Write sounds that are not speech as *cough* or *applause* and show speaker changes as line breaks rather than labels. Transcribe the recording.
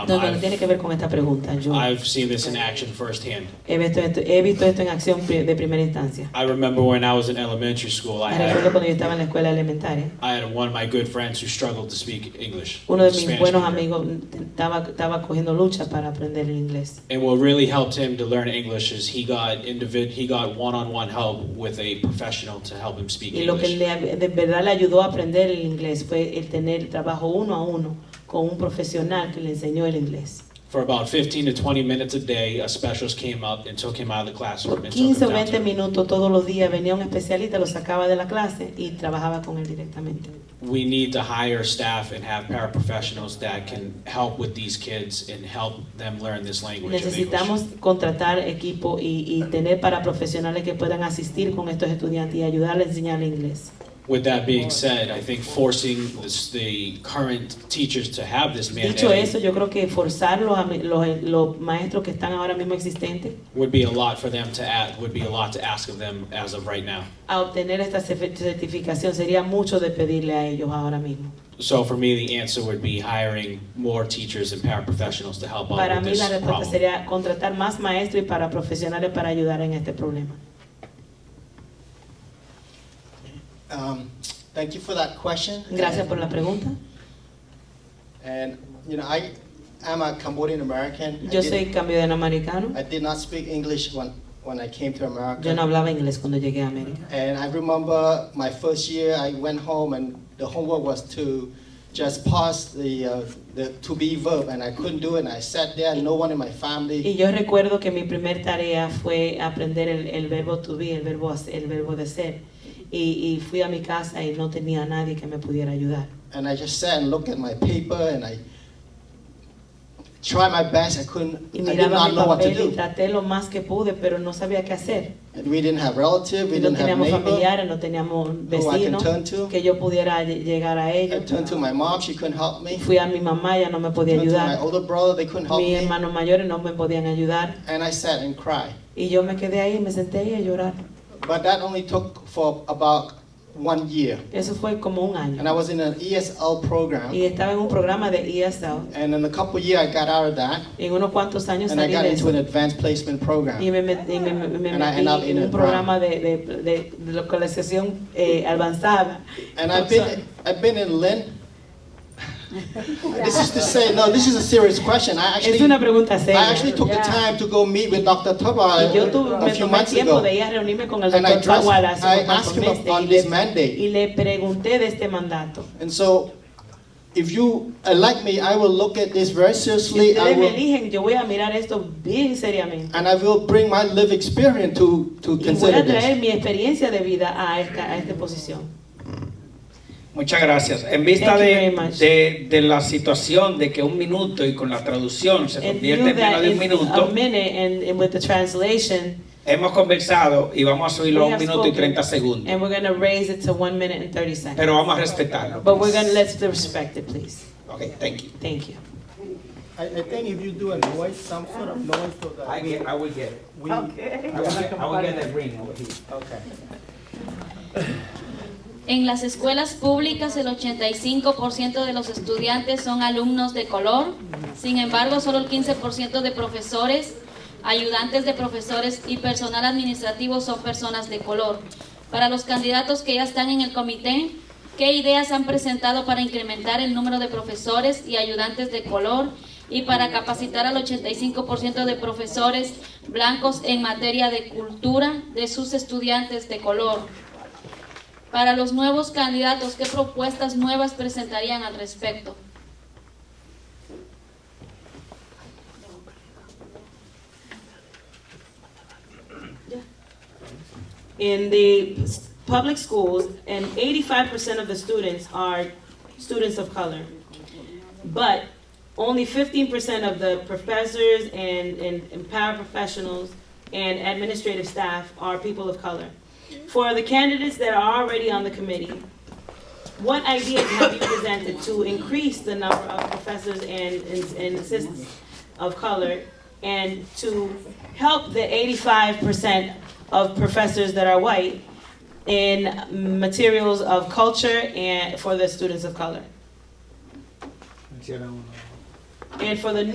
No, no, no
I've-
tiene que ver con esta pregunta. Yo
I've seen this in action firsthand.
he visto esto, he visto esto en acción pri- de primera instancia.
I remember when I was in elementary school, I
Me recuerdo
had,
cuando yo estaba en la escuela elementaria.
I had one of my good friends who struggled to speak English.
Uno de mis
Spanish
buenos
speaker.
amigos estaba, estaba cogiendo lucha para aprender el inglés.
And what really helped him to learn English is he got individ- he got one-on-one help with a professional to help him speak
Y lo que
English.
le- de verdad le ayudó a aprender el inglés fue el tener trabajo uno a uno con un profesional que le enseñó el inglés.
For about 15 to 20 minutes a day, a specialist came up and took him out of the classroom
Por
and took
15 o
him down
20
to-
minutos todos los días venía un especialista, lo sacaba de la clase y trabajaba con él directamente.
We need to hire staff and have paraprofessionals that can help with these kids and help them learn this language of English.
Necesitamos contratar equipo y, y tener para profesionales que puedan asistir con estos estudiantes y ayudarles a enseñar inglés.
With that being said, I think forcing this- the current teachers to have this
Dicho eso,
mandate
yo creo que forzar los, ami- los- eh, los maestros que están ahora mismo existentes
would be a lot for them to add, would be a lot to ask of them as of right now.
a obtener esta cer- certificación sería mucho de pedirle a ellos ahora mismo.
So for me, the answer would be hiring more teachers and paraprofessionals to help
Para
out with
mí la
this
respuesta
problem.
sería contratar más maestros y para profesionales para ayudar en este problema.
Um, Thank you for that question.
Gracias por la pregunta.
And, you know, I am a Cambodian American. I
Yo
did-
soy cambiadero americano.
I did not speak English when, when I came to America.
Yo no hablaba inglés cuando llegué a América.
And I remember my first year, I went home and the homework was to just pass the, uh, the to be verb and I couldn't do it and I sat there, no one in my
Y
family.
yo recuerdo que mi primer tarea fue aprender el, el verbo to be, el verbo, hacer- el verbo de ser. Y, y fui a mi casa y no tenía a nadie que me pudiera ayudar.
And I just sat and looked at my paper and I tried my best, I couldn't,
Y
I did
miraba
not
mi
know what to
papel y
do.
traté lo más que pude, pero no sabía qué hacer.
And we didn't have relative, we
Y no
didn't have
teníamos
neighbor.
familiares, no teníamos
who I can
vecinos
turn to.
que yo pudiera lle- llegar a
I
ellos.
turned to my mom, she couldn't help me.
Fui a mi mamá, ella no me podía
Turned to my
ayudar.
older brother, they couldn't help
Mis
me.
hermanos mayores no me podían ayudar.
And I sat and cried.
Y yo me quedé ahí, me senté ahí a llorar.
But that only took for about one year.
Eso fue como un
And I
año.
was in an ESL program.
Y estaba en un programa de E ESL.
And in a couple of years, I got out of that.
En unos cuantos años
And I
salí
got
de
into an
eso.
advanced placement program.
Y me, met- y me- me- me
And I end up
metí
in
en
a
un programa de, de, de- de localización eh, avanzada.
And I've
Entonces,
been, I've been in Lynn. *laughs* This is to say, no, this is a serious question. I
es una
actually,
pregunta
I
seria.
actually took the time to go meet with Dr.
Y yo tuve,
Taba a
me tomé
few
el
months
tiempo de
ago.
ir a reunirme con el
And I
doctor
addressed,
Tawala hace
I
unos cuantos
asked him
meses y
about this
le,
mandate.
y le pregunté de este mandato.
And so, if you elect me, I will look at this very
Si
seriously. I
ustedes me
will
eligen, yo voy a mirar esto bien seriamente.
And I will bring my live experience to, to
Y voy
consider
a traer
this.
mi experiencia de vida a esta, a esta posición.
Muchas gracias. En vista
Thank you
de,
very much.
de- de la situación de que un minuto y con la traducción se
And
convierte en menos de un
a
minuto,
minute and, and with the translation,
hemos conversado y vamos a subirlo
We
a un
have
minuto y
spoken.
30 segundos.
And we're gonna raise it to one minute and thirty seconds.
Pero vamos a respetarlo.
But we're gonna, let's respect it, please.
Ok, thank you.
Thank you.
I, I think if you do a noise, some sort of noise so that we,
I will get it.
we,
I will get, I will get the ring over here.
okay.
En las escuelas públicas el 85% de los estudiantes son alumnos de color, sin embargo solo el 15% de profesores, ayudantes de profesores y personal administrativo son personas de color. Para los candidatos que ya están en el comité, ¿qué ideas han presentado para incrementar el número de profesores y ayudantes de color y para capacitar al 85% de profesores blancos en materia de cultura de sus estudiantes de color? Para los nuevos candidatos, ¿qué propuestas nuevas presentarían al respecto?
In the s- public schools, and eighty-five percent of the students are students of color. But only fifteen percent of the professors and, and, and paraprofessionals and administrative staff are people of color. For the candidates that are already on the committee, what ideas have you presented to increase the number of professors and, and, and assistants of color and to help the eighty-five percent of professors that are white in materials of culture and for the students of color? And for the